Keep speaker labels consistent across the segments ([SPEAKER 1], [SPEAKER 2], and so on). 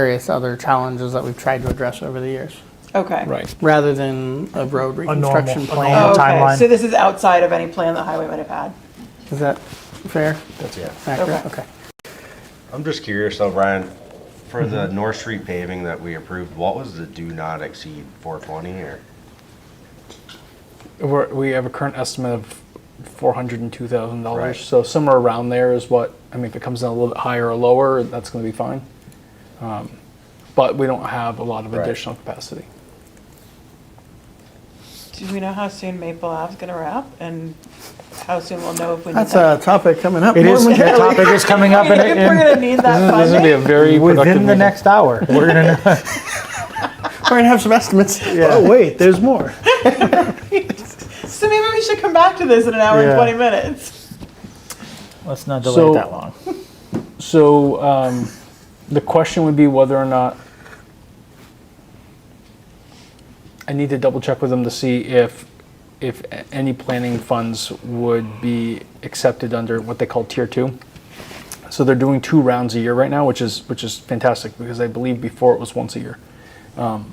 [SPEAKER 1] various other challenges that we've tried to address over the years,
[SPEAKER 2] Okay. Oh,
[SPEAKER 3] Right.
[SPEAKER 1] rather than a road
[SPEAKER 4] A normal-
[SPEAKER 1] reconstruction
[SPEAKER 4] a
[SPEAKER 1] plan.
[SPEAKER 4] normal-
[SPEAKER 2] Okay,
[SPEAKER 4] timeline.
[SPEAKER 2] so this is outside of any plan the highway might have had.
[SPEAKER 1] Is that fair?
[SPEAKER 5] That's it.
[SPEAKER 1] Accurate?
[SPEAKER 2] Okay.
[SPEAKER 1] Okay.
[SPEAKER 5] I'm just curious though, Brian, for the North Street paving that we approved, what was the do not exceed four twenty or?
[SPEAKER 3] We're, we have a current estimate of four hundred and two thousand
[SPEAKER 5] Right.
[SPEAKER 3] dollars. So somewhere around there is what I mean. If it comes in a little bit higher or lower, that's going to be fine. Um, but we don't have a lot of
[SPEAKER 5] Right.
[SPEAKER 3] additional capacity.
[SPEAKER 2] Do we know how soon Maple Ave's gonna wrap and how soon we'll know if we need
[SPEAKER 1] That's
[SPEAKER 2] that?
[SPEAKER 1] a topic coming up.
[SPEAKER 4] It
[SPEAKER 1] more
[SPEAKER 4] is,
[SPEAKER 1] than-
[SPEAKER 4] that topic is coming up
[SPEAKER 2] If
[SPEAKER 4] in,
[SPEAKER 2] we're
[SPEAKER 4] in,
[SPEAKER 2] gonna need that
[SPEAKER 3] This is going to be a
[SPEAKER 2] funding,
[SPEAKER 3] very productive
[SPEAKER 4] within the
[SPEAKER 3] meeting.
[SPEAKER 4] next hour. We're gonna, know-
[SPEAKER 1] We're gonna have some estimates.
[SPEAKER 4] oh, wait, there's more.
[SPEAKER 2] so maybe we should come back to this in an hour and
[SPEAKER 4] Yeah.
[SPEAKER 2] twenty minutes.
[SPEAKER 4] Let's not delay
[SPEAKER 3] So-
[SPEAKER 4] it that long.
[SPEAKER 3] So um, the question would be whether or not I need to double check with them to see if if a- any planning funds would be accepted under what they call tier two. So they're doing two rounds a year right now, which is which is fantastic because I believe before it was once a year. Um,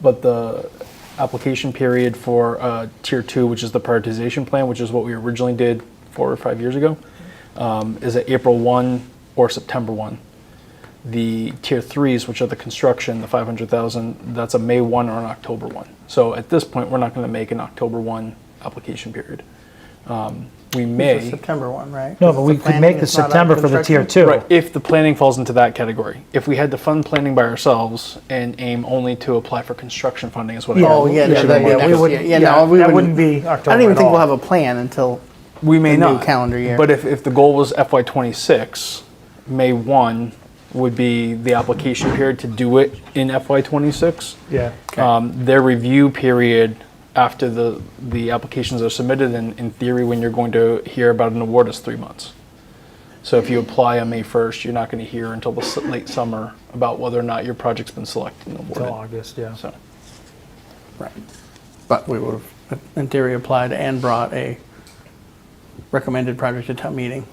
[SPEAKER 3] but the application period for uh, tier two, which is the prioritization plan, which is what we originally did four or five years ago, um, is it April 1 or September 1? The tier threes, which are the construction, the 500,000, that's a May 1 or an October 1. So at this point, we're not going to make an October 1 application period. Um,
[SPEAKER 1] It's
[SPEAKER 3] we
[SPEAKER 1] a
[SPEAKER 3] may,
[SPEAKER 1] September one, right?
[SPEAKER 4] No,
[SPEAKER 1] It's the
[SPEAKER 4] but we could
[SPEAKER 1] planning,
[SPEAKER 4] make the
[SPEAKER 1] it's not a
[SPEAKER 4] September for the tier
[SPEAKER 1] construction.
[SPEAKER 4] two.
[SPEAKER 3] right, if the planning falls into that category. If we had to fund planning by ourselves and aim only to apply for construction funding is what I
[SPEAKER 1] Oh, yeah,
[SPEAKER 3] we
[SPEAKER 1] yeah,
[SPEAKER 3] should
[SPEAKER 1] that-
[SPEAKER 3] have
[SPEAKER 1] yeah,
[SPEAKER 3] looked
[SPEAKER 1] we
[SPEAKER 3] at.
[SPEAKER 1] wouldn't, yeah,
[SPEAKER 4] yeah,
[SPEAKER 1] no, we
[SPEAKER 4] that
[SPEAKER 1] wouldn't.
[SPEAKER 4] wouldn't be
[SPEAKER 1] I
[SPEAKER 4] October
[SPEAKER 1] don't even
[SPEAKER 4] at
[SPEAKER 1] think we'll
[SPEAKER 4] all.
[SPEAKER 1] have a plan until,
[SPEAKER 3] We may
[SPEAKER 1] the new
[SPEAKER 3] not.
[SPEAKER 1] calendar year.
[SPEAKER 3] But if, if the goal was FY twenty-six, May one would be the application period to do it in FY twenty-six.
[SPEAKER 4] Yeah.
[SPEAKER 3] Um, their review period after the, the applications are submitted, and in theory, when you're going to hear about an award is three months. So if you apply on May first, you're not gonna hear until the s- late summer about whether or not your project's been selected and
[SPEAKER 4] Till
[SPEAKER 3] awarded.
[SPEAKER 4] August, yeah.
[SPEAKER 3] So,
[SPEAKER 1] right, but we would have, in theory, applied and brought a recommended project to town meeting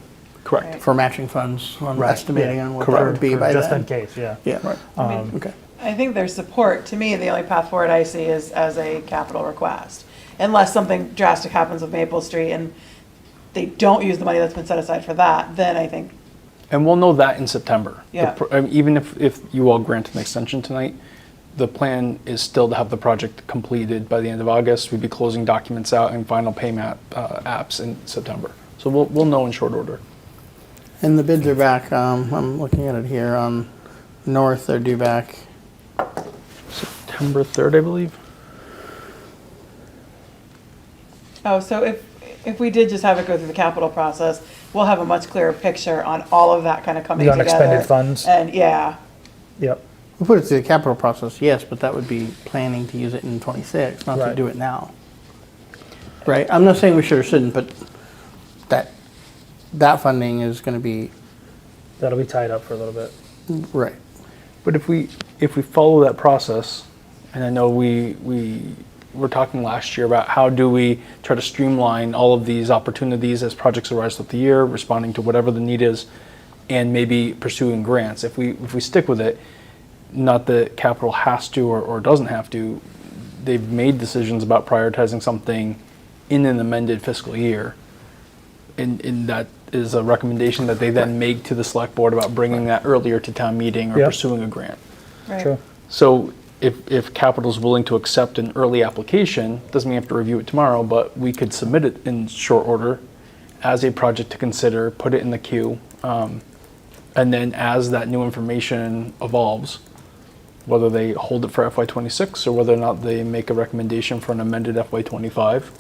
[SPEAKER 3] correct.
[SPEAKER 1] for matching funds, on
[SPEAKER 4] Right.
[SPEAKER 1] estimating on what that
[SPEAKER 4] Correct.
[SPEAKER 1] would be
[SPEAKER 4] For-
[SPEAKER 1] by
[SPEAKER 4] Just
[SPEAKER 1] then.
[SPEAKER 4] in case, yeah.
[SPEAKER 1] Yeah, Um, okay.
[SPEAKER 2] I think there's support, to me, the only path forward I see is as a capital request. Unless something drastic happens with Maple Street and they don't use the money that's been set aside for that, then I think
[SPEAKER 3] And we'll know that in September. The
[SPEAKER 2] Yeah.
[SPEAKER 3] pr- um, Even if, if you all grant an extension tonight, the plan is still to have the project completed by the end of August. We'd be closing documents out and final payment uh, apps in September. So we'll, we'll know in short order.
[SPEAKER 1] And the bids are back, um, I'm looking at it here, on north, they're due back,
[SPEAKER 3] September 3rd, I believe?
[SPEAKER 2] Oh, so if, if we did just have it go through the capital process, we'll have a much clearer picture on all of that kind of coming
[SPEAKER 4] The
[SPEAKER 2] together.
[SPEAKER 4] unexpended funds.
[SPEAKER 2] And, yeah,
[SPEAKER 4] Yep.
[SPEAKER 1] we put it through the capital process, yes, but that would be planning to use it in twenty-six, not to
[SPEAKER 4] Right.
[SPEAKER 1] do it now. Right, I'm not saying we should or shouldn't, but that, that funding is gonna be,
[SPEAKER 4] That'll be tied up for a little bit.
[SPEAKER 1] right,
[SPEAKER 3] But if we, if we follow that process, and I know we, we were talking last year about how do we try to streamline all of these opportunities as projects arise throughout the year, responding to whatever the need is, and maybe pursuing grants. If we, if we stick with it, not that capital has to or, or doesn't have to, they've made decisions about prioritizing something in an amended fiscal year. And, and that is a recommendation that they then make to the select board about bringing that earlier to town meeting or
[SPEAKER 4] Yeah.
[SPEAKER 3] pursuing a grant.
[SPEAKER 2] right.
[SPEAKER 4] True.
[SPEAKER 3] So if, if capital's willing to accept an early application, doesn't mean you have to review it tomorrow, but we could submit it in short order as a project to consider, put it in the queue. um, And then as that new information evolves, whether they hold it for FY twenty-six or whether or not they make a recommendation for an amended FY twenty-five.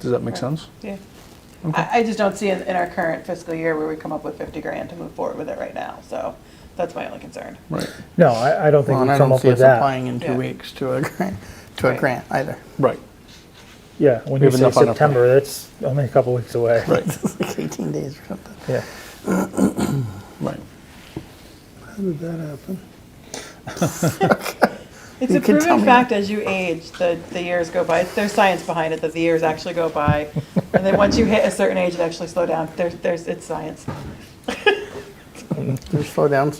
[SPEAKER 3] Does that make sense?
[SPEAKER 2] Yeah. I, I just don't see in, in our current fiscal year where we come up with fifty grand to move forward with it right now, so that's my only concern.
[SPEAKER 3] Right.
[SPEAKER 4] No, I, I don't think
[SPEAKER 1] well,
[SPEAKER 4] we
[SPEAKER 1] and I
[SPEAKER 4] come
[SPEAKER 1] don't
[SPEAKER 4] up
[SPEAKER 1] see
[SPEAKER 4] with
[SPEAKER 1] us
[SPEAKER 4] that.
[SPEAKER 1] applying in two
[SPEAKER 2] Yeah.
[SPEAKER 1] weeks to a grant, to a
[SPEAKER 2] Right.
[SPEAKER 1] grant either.
[SPEAKER 3] Right,
[SPEAKER 4] Yeah, when
[SPEAKER 3] We
[SPEAKER 4] you
[SPEAKER 3] have
[SPEAKER 4] say
[SPEAKER 3] enough on our plate.
[SPEAKER 4] September, that's only a couple weeks away.
[SPEAKER 3] right,
[SPEAKER 1] It's like eighteen days or something.
[SPEAKER 4] Yeah.
[SPEAKER 3] right.
[SPEAKER 1] How did that happen?
[SPEAKER 2] It's
[SPEAKER 1] You
[SPEAKER 2] a
[SPEAKER 1] can tell
[SPEAKER 2] proven
[SPEAKER 1] me.
[SPEAKER 2] fact as you age, the, the years go by, there's science behind it, that the years actually go by. And then once you hit a certain age, it actually slow down, there's, there's, it's science.
[SPEAKER 1] Can you slow down